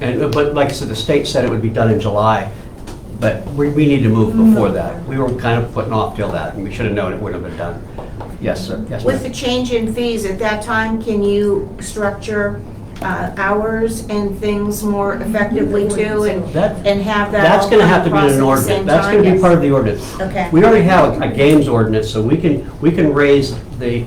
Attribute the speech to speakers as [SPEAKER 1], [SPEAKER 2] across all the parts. [SPEAKER 1] And, but like I said, the state said it would be done in July, but we, we need to move before that. We were kind of putting off till that, and we should have known it would have been done. Yes, sir, yes,
[SPEAKER 2] With the
[SPEAKER 1] ma'am.
[SPEAKER 2] change in fees, at that time, can you structure uh, hours and things more effectively too? and-
[SPEAKER 1] That-
[SPEAKER 2] And have that
[SPEAKER 1] That's
[SPEAKER 2] all
[SPEAKER 1] gonna
[SPEAKER 2] come
[SPEAKER 1] have to be in
[SPEAKER 2] across
[SPEAKER 1] an
[SPEAKER 2] at the same
[SPEAKER 1] ordinance, that's gonna
[SPEAKER 2] time?
[SPEAKER 1] be part of the ordinance.
[SPEAKER 2] Okay.
[SPEAKER 1] We already have a games ordinance, so we can, we can raise the,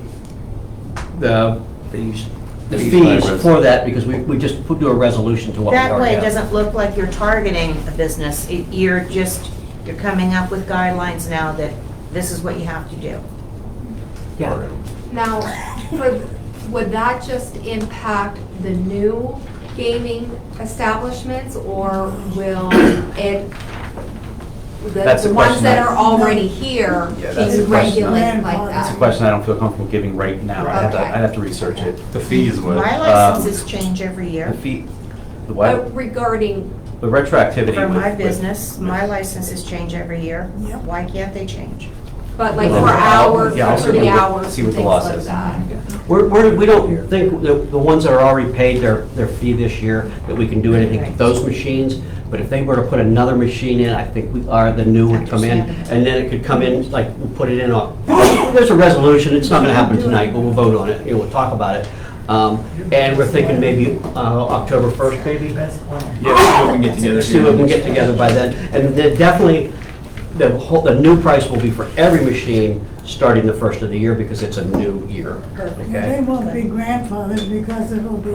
[SPEAKER 1] the,
[SPEAKER 3] Fees.
[SPEAKER 1] the
[SPEAKER 3] Fees by
[SPEAKER 1] fees
[SPEAKER 3] res-
[SPEAKER 1] for that, because we, we just put, do a resolution to what we
[SPEAKER 2] That way,
[SPEAKER 1] already
[SPEAKER 2] it
[SPEAKER 1] have.
[SPEAKER 2] doesn't look like you're targeting a business. It- You're just, you're coming up with guidelines now that this is what you have to do.
[SPEAKER 1] Yeah.
[SPEAKER 4] Now, for- would that just impact the new gaming establishments, or will it, the
[SPEAKER 1] That's a
[SPEAKER 4] the ones
[SPEAKER 1] question
[SPEAKER 4] that
[SPEAKER 1] I-
[SPEAKER 4] are already here,
[SPEAKER 3] Yeah, that's
[SPEAKER 4] be
[SPEAKER 3] a question I-
[SPEAKER 4] regulated like
[SPEAKER 3] It's a
[SPEAKER 4] that?
[SPEAKER 3] question I don't feel comfortable giving right now. I'd have to, I'd have to research it.
[SPEAKER 5] The fees would.
[SPEAKER 3] um,
[SPEAKER 2] My licenses change every
[SPEAKER 3] The
[SPEAKER 2] year.
[SPEAKER 3] fee, the
[SPEAKER 6] Oh.
[SPEAKER 4] But
[SPEAKER 3] what?
[SPEAKER 4] Regarding,
[SPEAKER 3] The retroactivity.
[SPEAKER 2] For my
[SPEAKER 3] with- with-
[SPEAKER 2] business, my licenses change every year. Why can't they change?
[SPEAKER 4] but like
[SPEAKER 3] Well,
[SPEAKER 4] for hours,
[SPEAKER 3] yeah, I'll
[SPEAKER 4] for the
[SPEAKER 3] certainly
[SPEAKER 4] hours,
[SPEAKER 3] see
[SPEAKER 4] and
[SPEAKER 3] what the
[SPEAKER 4] things
[SPEAKER 3] law
[SPEAKER 4] like
[SPEAKER 3] says.
[SPEAKER 4] that.
[SPEAKER 1] We're, we're, we don't think, the, the ones that are already paid their, their fee this year, that we can do anything to those machines. But if they were to put another machine in, I think we are, the new would come in. And then it could come in, like, we put it in on, there's a resolution, it's not gonna happen tonight, but we'll vote on it, you know, we'll talk about it. Um, and we're thinking maybe, uh, October first maybe?
[SPEAKER 5] Yeah, see what we can get together.
[SPEAKER 1] See
[SPEAKER 5] here.
[SPEAKER 1] what we can get together by then. And then definitely, the whole, the new price will be for every machine starting the first of the year because it's a new year.
[SPEAKER 7] They
[SPEAKER 1] Okay?
[SPEAKER 7] won't be grandfathered because it'll be.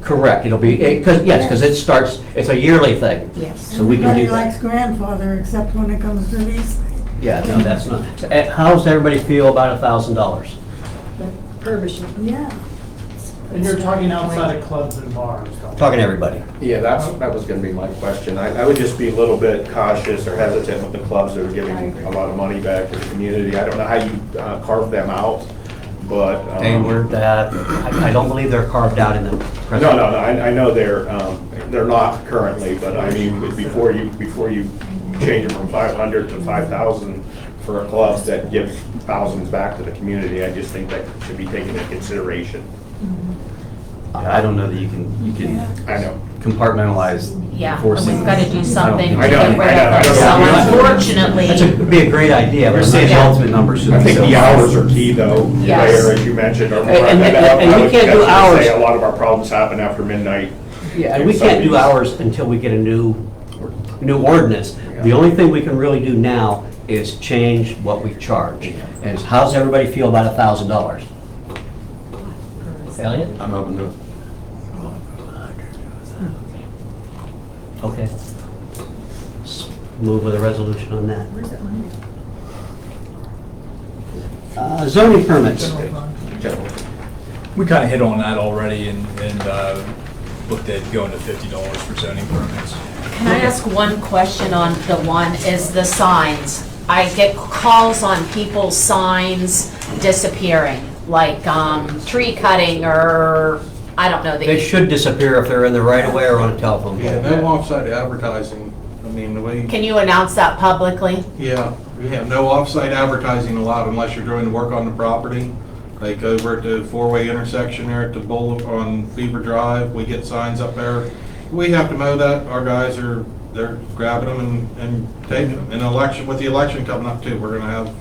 [SPEAKER 1] Correct, it'll be, because, yes, because it starts, it's a yearly thing.
[SPEAKER 2] Yes.
[SPEAKER 1] So we can
[SPEAKER 7] Everybody
[SPEAKER 1] do
[SPEAKER 7] likes
[SPEAKER 1] that.
[SPEAKER 7] grandfather except when it comes to these things.
[SPEAKER 1] Yeah, no, that's not, eh, how does everybody feel about a thousand dollars?
[SPEAKER 7] Yeah.
[SPEAKER 8] And you're talking outside of clubs and bars. though.
[SPEAKER 1] Talking to everybody.
[SPEAKER 9] Yeah, that's, that was gonna be my question. I, I would just be a little bit cautious or hesitant with the clubs that are giving a lot of money back to the community. I don't know how you uh, carve them out, but. um,
[SPEAKER 1] They were that, I I don't believe they're carved out in the present.
[SPEAKER 9] No, no, no, I, I know they're, um, they're not currently, but I mean, before you, before you change it from five hundred to five thousand for a club that gives thousands back to the community, I just think that should be taken into consideration.
[SPEAKER 3] I I don't know that you can, you can
[SPEAKER 9] I know.
[SPEAKER 3] compartmentalize
[SPEAKER 6] Yeah,
[SPEAKER 3] enforcing.
[SPEAKER 6] we've got to do
[SPEAKER 3] this.
[SPEAKER 6] something
[SPEAKER 3] don't-
[SPEAKER 6] to
[SPEAKER 9] I know,
[SPEAKER 6] get rid
[SPEAKER 9] I know, I
[SPEAKER 6] of
[SPEAKER 9] know.
[SPEAKER 6] them. So
[SPEAKER 1] That's a,
[SPEAKER 6] unfortunately,
[SPEAKER 1] would be a great idea. but I'm
[SPEAKER 3] You're
[SPEAKER 1] not
[SPEAKER 3] saying the
[SPEAKER 1] sure.
[SPEAKER 3] ultimate number should be.
[SPEAKER 9] I think the
[SPEAKER 3] so-
[SPEAKER 9] hours are key, though,
[SPEAKER 6] Yes.
[SPEAKER 9] there, as you mentioned. or-
[SPEAKER 1] And- and- and- and
[SPEAKER 9] I
[SPEAKER 1] we
[SPEAKER 9] would
[SPEAKER 1] can't do
[SPEAKER 9] definitely say
[SPEAKER 1] hours.
[SPEAKER 9] A lot of our problems happen after midnight.
[SPEAKER 1] Yeah, and we can't do ours until we get a new, new ordinance. The only thing we can really do now is change what we charge. And it's, how's everybody feel about a thousand dollars? Elliot?
[SPEAKER 3] I'm open to it.
[SPEAKER 1] Okay. S- Move with a resolution on that. Uh, zoning permits.
[SPEAKER 10] We kind of hit on that already and, and uh, looked at going to fifty dollars for zoning permits.
[SPEAKER 6] can I ask one question on the one, is the signs? I get calls on people's signs disappearing, like um, tree cutting or, I don't know,
[SPEAKER 1] They
[SPEAKER 6] the
[SPEAKER 1] should disappear if they're in the right of way or on a telephone
[SPEAKER 5] Yeah,
[SPEAKER 1] pole.
[SPEAKER 5] no offsite advertising, I mean, the way,
[SPEAKER 6] can you announce that publicly?
[SPEAKER 5] yeah, we have no offsite advertising allowed unless you're doing work on the property. Like over at the four-way intersection there at the bowl on Beaver Drive, we get signs up there. We have to mow that, our guys are, they're grabbing them and, and taking them. And election, with the election coming up too, we're gonna have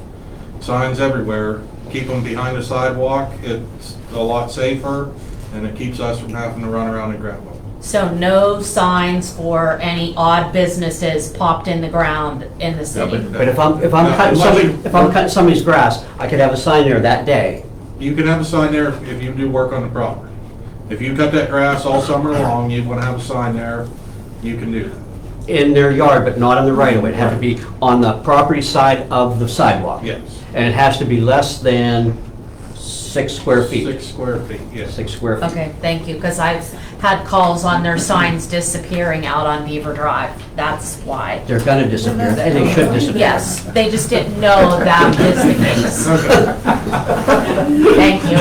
[SPEAKER 5] signs everywhere. Keep them behind the sidewalk, it's a lot safer, and it keeps us from having to run around and grab them.
[SPEAKER 6] So no signs for any odd businesses popped in the ground in the city?
[SPEAKER 1] But if I'm, if I'm cutting somebody, if I'm cutting somebody's grass, I could have a sign there that day.
[SPEAKER 5] You can have a sign there if- if you do work on the property. If you cut that grass all summer long, you want to have a sign there, you can do that.
[SPEAKER 1] in their yard, but not on the right of way. It'd have to be on the property side of the sidewalk.
[SPEAKER 5] Yes.
[SPEAKER 1] And it has to be less than six square
[SPEAKER 5] Six
[SPEAKER 1] feet.
[SPEAKER 5] square feet, yes.
[SPEAKER 1] Six square feet.
[SPEAKER 6] Okay, thank you, because I've had calls on their signs disappearing out on Beaver Drive. That's why.
[SPEAKER 1] They're gonna disappear, and they should disappear.
[SPEAKER 6] Yes, they just didn't know that is the case.
[SPEAKER 5] Okay.
[SPEAKER 6] Thank you.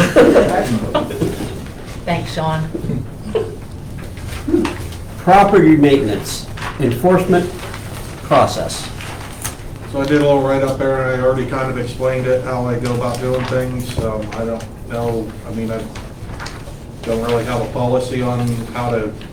[SPEAKER 6] Thanks, Sean.
[SPEAKER 1] Property maintenance, enforcement process.
[SPEAKER 5] So I did a little write-up there, and I already kind of explained it, how I go about doing things. Um, I don't know, I mean, I don't really have a policy on how to